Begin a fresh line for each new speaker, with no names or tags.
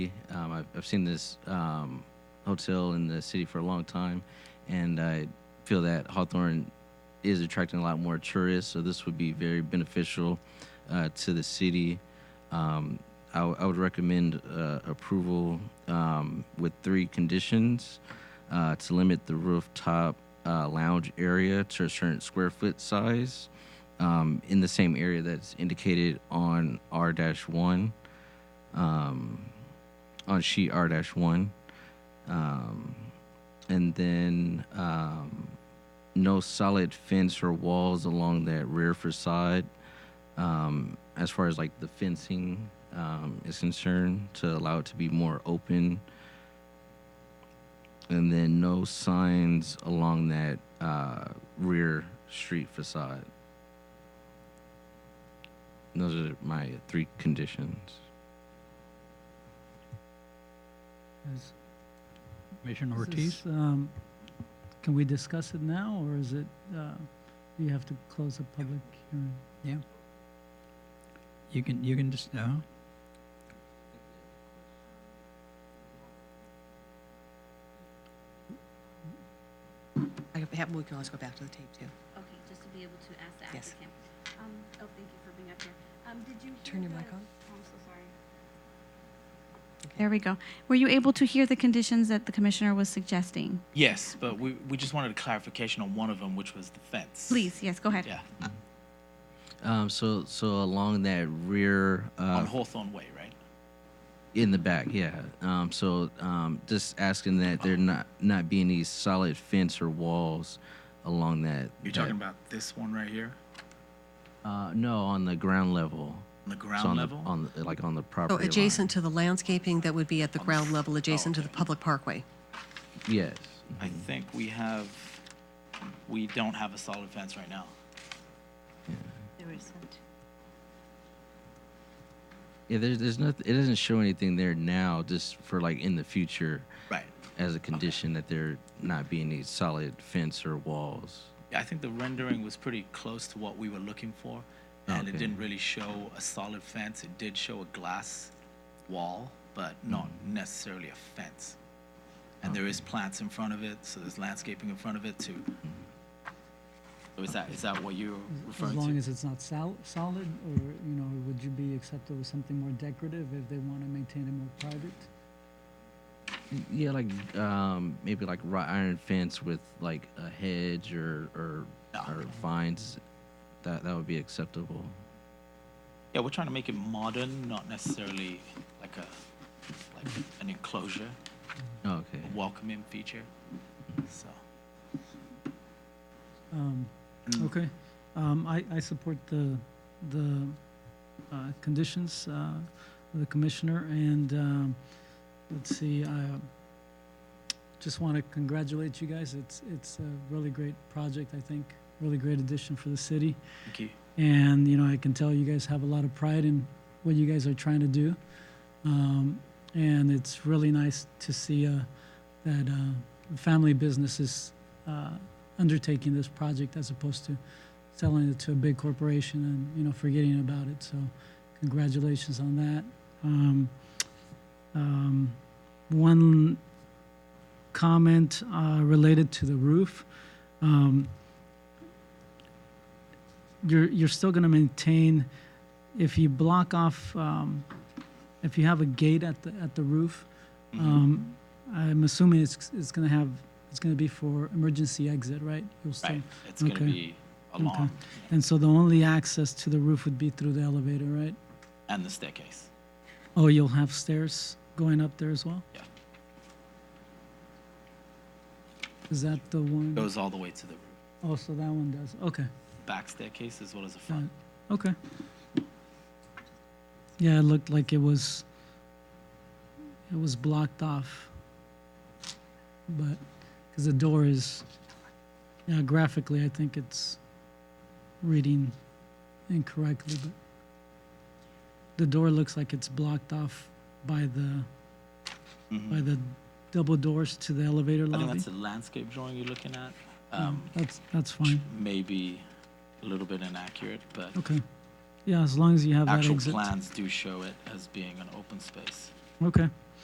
I've, I've seen this um, hotel in the city for a long time, and I feel that Hawthorne is attracting a lot more tourists, so this would be very beneficial uh, to the city. Um, I, w- I would recommend uh, approval um, with three conditions uh, to limit the rooftop uh, lounge area to a certain square foot size um, in the same area that's indicated on R 1, um, on sheet R 1. Um, and then um, no solid fence or walls along that rear facade um, as far as like the fencing um, is concerned to allow it to be more open and then no signs along that uh, rear street facade those are my three conditions
Is Commissioner
This
Ortiz,
is-
um, can we discuss it now, or is it, uh, you have to close the public hearing?
You can, you can just, uh, no.
I could have- We can always go back to the tape, too.
Okay, just to be able to ask the
Yes.
applicant. Um, oh, thank you for being up here. Um, did you hear
Turn your
the-
mic on.
Oh, I'm so sorry.
There
There we go. Were you able to hear the conditions that the commissioner was suggesting?
Yes, but we, we just wanted a clarification on one of them, which was the fence.
Please, yes, go ahead.
Yeah,
Uh, um, so so along that rear uh,
on Hawthorne Way, right?
In the back, yeah. Um, so um, just asking that there not not be any solid fence or walls along that.
You're
that-
talking about this one right here,
Uh, no, on the ground level.
on the
So
ground
on
level?
The, on the, like on the
So
property. line.
adjacent to the landscaping that would be at the ground level, adjacent to the
okay.
public parkway.
Yes.
I think we have, we don't have a solid fence right now.
Yeah. There's there's nothing. It doesn't show anything there now. Just for like in the future,
Right.
as a condition that there not be any solid fence or walls.
I think the rendering was pretty close to what we were looking for, and
Okay.
it didn't really show a solid fence. It did show a glass wall, but not necessarily a fence. And there is plants in front of it, so there's landscaping in front of it too. So is that is that what you're
As-
referring
As
to?
long as it's not sol- solid, or, you know, would you be acceptable with something more decorative if they want to maintain it more private?
Yeah, like um, maybe like wrought iron fence with like a hedge or or, or vines. That that would be acceptable.
Yeah, we're trying to make it modern, not necessarily like a like an enclosure,
Okay.
a welcoming feature. So
Um, Okay, um, I, I support the, the, uh, conditions, uh, of the commissioner, and, um, let's see, I um, just want to congratulate you guys, it's, it's a really great project, I think, really great addition for the city,
thank you.
and, you know, I can tell you guys have a lot of pride in what you guys are trying to do. Um, and it's really nice to see, uh, that, uh, family businesses, uh, undertaking this project as opposed to selling it to a big corporation and, you know, forgetting about it. So congratulations on that. Um, um, one comment uh, related to the roof. Um, you're, you're still going to maintain, if you block off, um, if you have a gate at the, at the roof,
Mm-hmm.
um, I'm assuming it's, it's going to have, it's going to be for emergency exit, right? You'll still-
Right, it's gonna
okay.
be along
And so the only access to the roof would be through the elevator, right?
and the staircase.
Oh, you'll have stairs going up there as well?
Yeah,
Is that the one?
goes all the way to the
Oh, so that one does. Okay.
back staircase as well as the
got
front.
it. Okay. Yeah, it looked like it was, it was blocked off. But, because the door is, yeah, graphically, I think it's reading incorrectly, but the door looks like it's blocked off by the, by the double doors to the elevator
Mm-hmm. I
Mm. lobby.
think that's a landscape drawing you're looking at. Um,
That's, that's fine.
maybe a little bit inaccurate, but
Okay. Yeah, as long as you have that
actual
exit.
plans do show it as being an open space.
Okay.